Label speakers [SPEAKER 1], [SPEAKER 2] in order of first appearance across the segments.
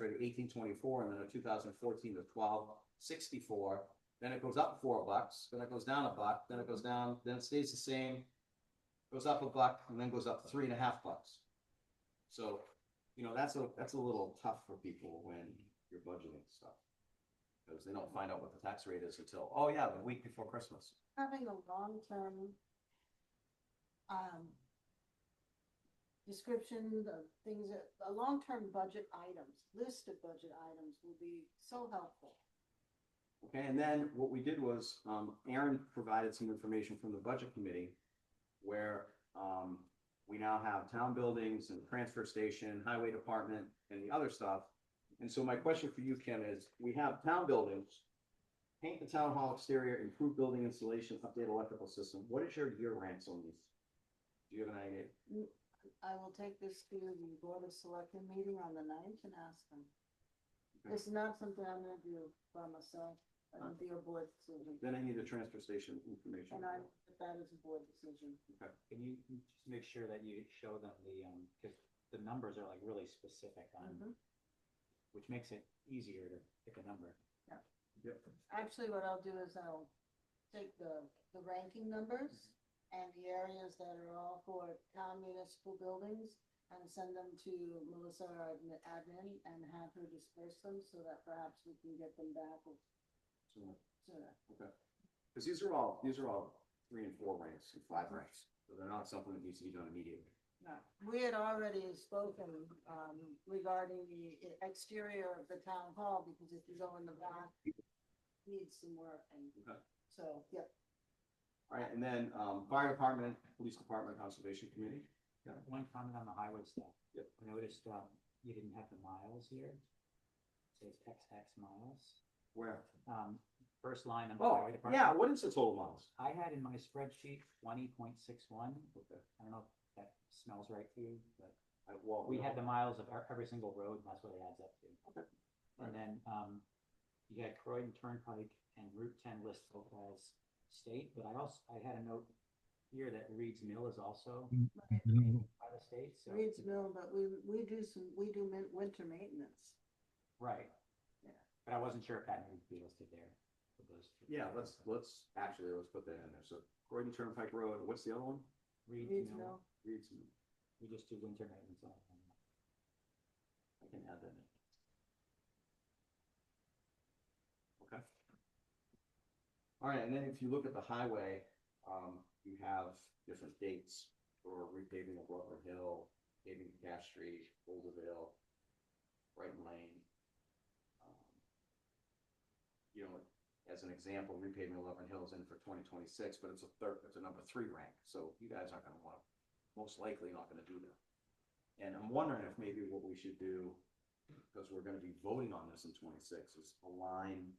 [SPEAKER 1] rate of eighteen twenty-four, and then a two thousand fourteen to twelve sixty-four. Then it goes up four bucks, then it goes down a buck, then it goes down, then it stays the same. Goes up a buck and then goes up three and a half bucks. So, you know, that's a, that's a little tough for people when you're budgeting stuff. Because they don't find out what the tax rate is until, oh yeah, the week before Christmas.
[SPEAKER 2] having a long-term um, description of things, that- a long-term budget items, list of budget items will be so helpful.
[SPEAKER 1] Okay, and then what we did was, um, Aaron provided some information from the budget committee where, um, we now have town buildings and transfer station, highway department and the other stuff. And so my question for you, Ken, is we have town buildings, paint the town hall exterior, improve building installation, update electrical system. What is your year ranks on these? Do you have an idea?
[SPEAKER 2] I will take this to the Board of Selectmen meeting on the ninth and ask them.
[SPEAKER 1] Okay.
[SPEAKER 2] It's not something I'm gonna do by myself, it'll be a board decision,
[SPEAKER 1] Then I need the transfer station information.
[SPEAKER 2] and I, that is a board decision.
[SPEAKER 3] Can you you just make sure that you show them the, um, cause the numbers are like really specific on,
[SPEAKER 1] Mm-hmm.
[SPEAKER 2] Mhm.
[SPEAKER 3] which makes it easier to pick a number.
[SPEAKER 1] Yep.
[SPEAKER 2] Actually, what I'll do is I'll take the, the ranking numbers and the areas that are all for town municipal buildings and send them to Melissa, our admi- admin, and have her disperse them so that perhaps we can get them back
[SPEAKER 1] So-
[SPEAKER 2] sooner.
[SPEAKER 1] Cause these are all, these are all three and four ranks and five ranks, so they're not something that needs to be done immediately.
[SPEAKER 2] We had already spoken, um, regarding the e- exterior of the town hall because if you go in the back, needs some work and,
[SPEAKER 1] Okay.
[SPEAKER 2] so, yep.
[SPEAKER 1] Alright, and then, um, fire department, police department, conservation committee,
[SPEAKER 3] One comment on the highway stuff.
[SPEAKER 1] Yep.
[SPEAKER 3] I noticed, um, you didn't have the miles here. It Says XX miles.
[SPEAKER 1] where?
[SPEAKER 3] Um, first line on the
[SPEAKER 1] Oh,
[SPEAKER 3] highway
[SPEAKER 1] yeah,
[SPEAKER 3] department.
[SPEAKER 1] what is the total miles?
[SPEAKER 3] I had in my spreadsheet twenty point six one.
[SPEAKER 1] Okay.
[SPEAKER 3] I don't know if that smells right to you, but
[SPEAKER 1] I, well.
[SPEAKER 3] we had the miles of our- every single road, and that's what it adds up to.
[SPEAKER 1] Okay.
[SPEAKER 3] And then, um, you had Croydon Turnpike and Route ten listed both as state, but I also, I had a note here that Reed's Mill is also by the state, so.
[SPEAKER 2] Reed's Mill, but we, we do some, we do min- winter maintenance.
[SPEAKER 3] Right.
[SPEAKER 2] Yeah.
[SPEAKER 3] But I wasn't sure if that needed to be listed there. for those two.
[SPEAKER 1] Yeah, let's, let's, actually, let's put that in there, so Croydon Turnpike Road, what's the other one?
[SPEAKER 3] Reed's
[SPEAKER 2] Reed's
[SPEAKER 3] Mill,
[SPEAKER 2] Mill.
[SPEAKER 1] Reed's,
[SPEAKER 3] we just do winter maintenance on them.
[SPEAKER 1] I can add that in. Okay. Alright, and then if you look at the highway, um, you have different dates for repaving of Rutland Hill, paving of Cash Street, Oldville, Brighton Lane. Um, You know, as an example, repaving Rutland Hill is in for twenty twenty-six, but it's a third, it's a number three rank, so you guys aren't gonna wanna, most likely not gonna do that. And I'm wondering if maybe what we should do, because we're gonna be voting on this in twenty-six, is align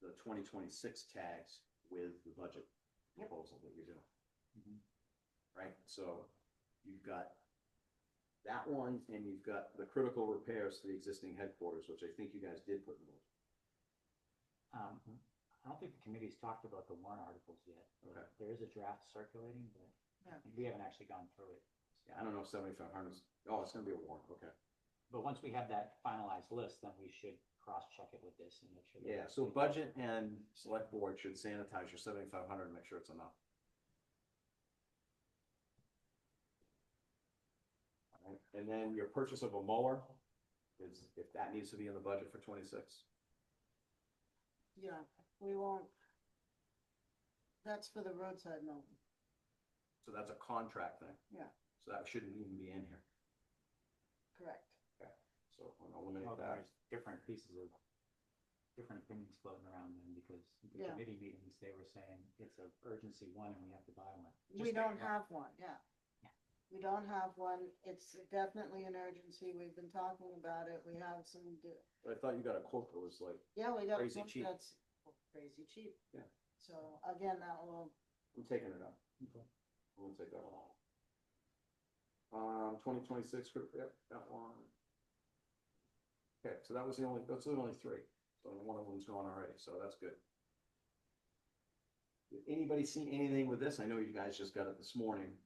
[SPEAKER 1] the twenty twenty-six tags with the budget proposal that you're doing,
[SPEAKER 2] Mm-hmm.
[SPEAKER 3] Mhm.
[SPEAKER 1] right? So you've got that one, and you've got the critical repairs to the existing headquarters, which I think you guys did put in those.
[SPEAKER 3] Um, I don't think the committee's talked about the warrant articles yet.
[SPEAKER 1] Okay.
[SPEAKER 3] There is a draft circulating, but
[SPEAKER 2] Yeah.
[SPEAKER 3] we haven't actually gone through it.
[SPEAKER 1] Yeah, I don't know if seventy-five hundred is, oh, it's gonna be a warrant, okay.
[SPEAKER 3] But once we have that finalized list, then we should cross-check it with this and make sure. that-
[SPEAKER 1] Yeah, so budget and select board should sanitize your seventy-five hundred and make sure it's enough. Alright, And then your purchase of a mower is, if that needs to be in the budget for twenty-six.
[SPEAKER 2] Yeah, we won't. That's for the roadside mill.
[SPEAKER 1] So that's a contract thing.
[SPEAKER 2] Yeah.
[SPEAKER 1] So that shouldn't even be in here.
[SPEAKER 2] correct.
[SPEAKER 1] So I'm gonna eliminate
[SPEAKER 3] Well,
[SPEAKER 1] that.
[SPEAKER 3] there's different pieces of, different opinions floating around then, because the
[SPEAKER 2] Yeah.
[SPEAKER 3] committee meetings, they were saying it's an urgency one and we have to buy one.
[SPEAKER 2] We
[SPEAKER 3] Just-
[SPEAKER 2] don't have one, yeah.
[SPEAKER 3] Yeah.
[SPEAKER 2] We don't have one. It's definitely an urgency. We've been talking about it. We have some, d-
[SPEAKER 1] But I thought you got a quote that was like,
[SPEAKER 2] yeah, we got.
[SPEAKER 1] Crazy
[SPEAKER 2] one
[SPEAKER 1] cheap.
[SPEAKER 2] That's crazy cheap.
[SPEAKER 1] Yeah.
[SPEAKER 2] So again, that will,
[SPEAKER 1] I'm taking it out.
[SPEAKER 3] Okay.
[SPEAKER 1] I'm gonna take that one out. Um, twenty twenty-six, yep, that one. Okay, so that was the only, that's the only three, so one of them's gone already, so that's good. Did Anybody see anything with this? I know you guys just got it this morning,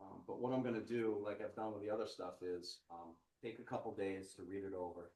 [SPEAKER 1] um, but what I'm gonna do, like I've done with the other stuff, is, um, take a couple days to read it over.